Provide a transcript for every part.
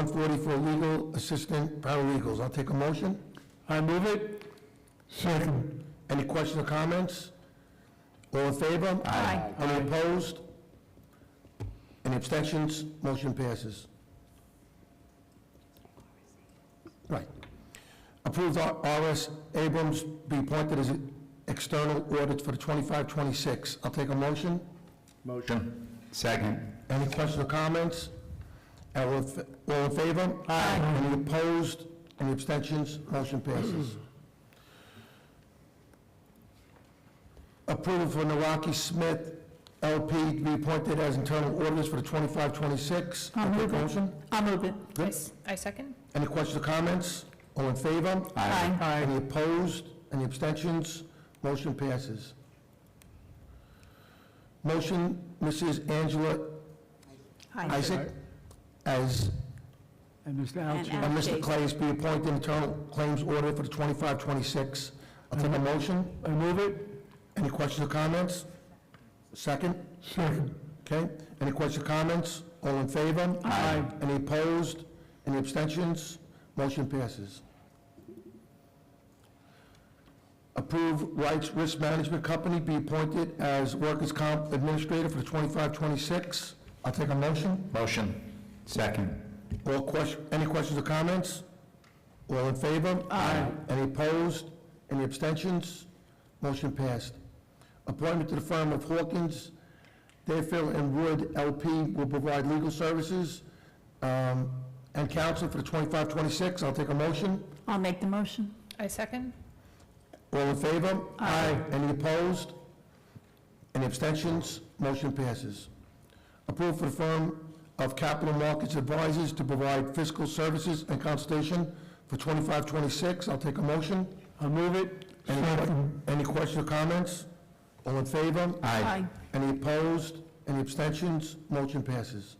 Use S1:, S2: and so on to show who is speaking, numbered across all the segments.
S1: 140 for legal assistant paralegals. I'll take a motion.
S2: I move it.
S1: Second. Any questions or comments? All in favor?
S3: Aye.
S1: Any opposed? Any abstentions? Motion passes. Right. Approve R- R.S. Abrams be appointed as external audit for the 25-26. I'll take a motion.
S3: Motion. Second.
S1: Any questions or comments? All in fa- all in favor? Aye. Any opposed? Any abstentions? Motion passes. Approval for Naraki Smith LP to be appointed as internal auditors for the 25-26.
S4: I'll
S1: Take
S4: move it.
S1: motion.
S4: I'll move it.
S1: Good.
S5: I second.
S1: Any questions or comments? All in favor?
S4: Aye.
S1: Any opposed? Any abstentions? Motion passes. Motion, Mrs. Angela
S4: Aye.
S1: Isaac as
S2: And Mr.
S4: And
S2: Altscher.
S1: And Mr.
S4: Jason.
S1: Clays be appointed internal claims order for the 25-26. I'll take a motion.
S2: I move it.
S1: Any questions or comments? Second? Second. Okay. Any questions or comments? All in favor?
S3: Aye.
S1: Any opposed? Any abstentions? Motion passes. Approve Rights Risk Management Company be appointed as workers' comp administrator for the 25-26. I'll take a motion.
S3: Motion. Second.
S1: All question, any questions or comments? All in favor? Aye. Any opposed? Any abstentions? Motion passed. Appointment to the firm of Hawkins, Dayfield and Wood LP will provide legal services um, and counsel for the 25-26. I'll take a motion.
S4: I'll make the motion.
S5: I second.
S1: All in favor?
S4: Aye.
S1: Any opposed? Any abstentions? Motion passes. Approved for the firm of Capital Markets Advisors to provide fiscal services and consultation for 25-26. I'll take a motion.
S2: I move it.
S1: Any que- Any questions or comments? All in favor?
S4: Aye.
S1: Any opposed? Any abstentions? Motion passes.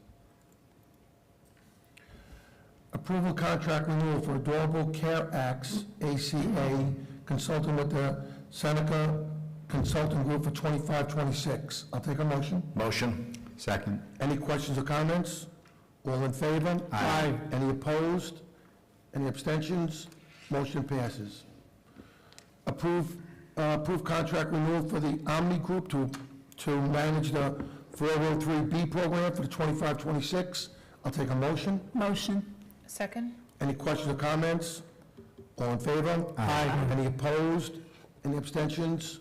S1: Approval contract renewal for Adorable Care Acts, ACA, consulting with the Seneca Consulting Group for 2526. I'll take a motion.
S3: Motion. Second.
S1: Any questions or comments? All in favor?
S3: Aye.
S1: Any opposed? Any abstentions? Motion passes. Approve, uh, approve contract renewal for the Omni Group to, to manage the 403B program for the 25-26. I'll take a motion.
S4: Motion.
S5: Second.
S1: Any questions or comments? All in favor? Aye. Any opposed? Any abstentions?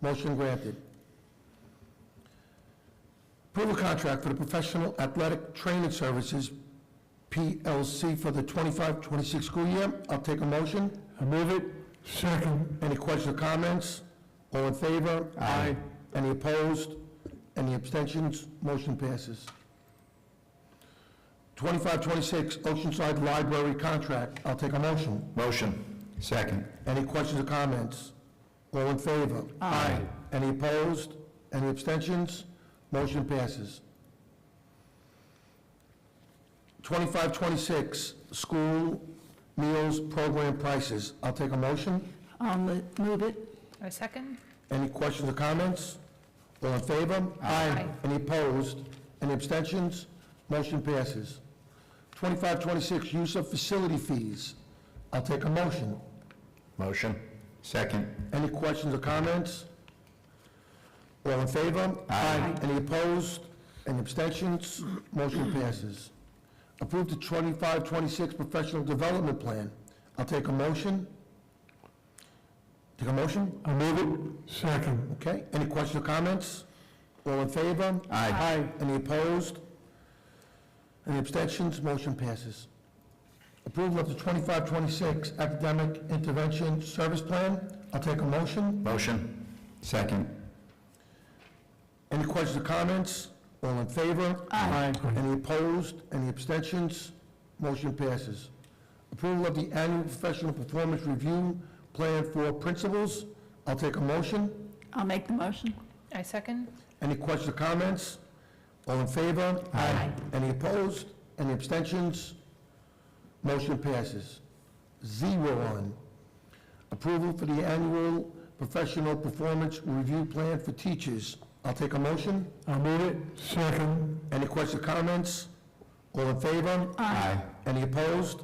S1: Motion granted. Approval contract for the Professional Athletic Training Services, PLC, for the 25-26 school year. I'll take a motion.
S2: I move it.
S1: Second. Any questions or comments? All in favor?
S3: Aye.
S1: Any opposed? Any abstentions? Motion passes. 2526 Oceanside Library Contract. I'll take a motion.
S3: Motion. Second.
S1: Any questions or comments? All in favor?
S3: Aye.
S1: Any opposed? Any abstentions? Motion passes. 2526 School Meals Program Prices. I'll take a motion.
S4: I'll mo- move it.
S5: I second.
S1: Any questions or comments? All in favor?
S5: Aye.
S1: Any opposed? Any abstentions? Motion passes. 2526, use of facility fees. I'll take a motion.
S3: Motion. Second.
S1: Any questions or comments? All in favor?
S3: Aye.
S1: Any opposed? Any abstentions? Motion passes. Approve the 2526 professional development plan. I'll take a motion. Take a motion?
S2: I move it. Second.
S1: Okay, any questions or comments? All in favor?
S3: Aye.
S1: Any opposed? Any abstentions? Motion passes. Approval of the 25-26 Academic Intervention Service Plan. I'll take a motion.
S3: Motion. Second.
S1: Any questions or comments? All in favor?
S2: Aye.
S1: Any opposed? Any abstentions? Motion passes. Approval of the Annual Professional Performance Review Plan for Principals. I'll take a motion.
S4: I'll make the motion.
S5: I second.
S1: Any questions or comments? All in favor?
S3: Aye.
S1: Any opposed? Any abstentions? Motion passes. Zero on. Approval for the annual professional performance review plan for teachers. I'll take a motion.
S2: I move it. Second.
S1: Any questions or comments? All in favor?
S3: Aye.
S1: Any opposed?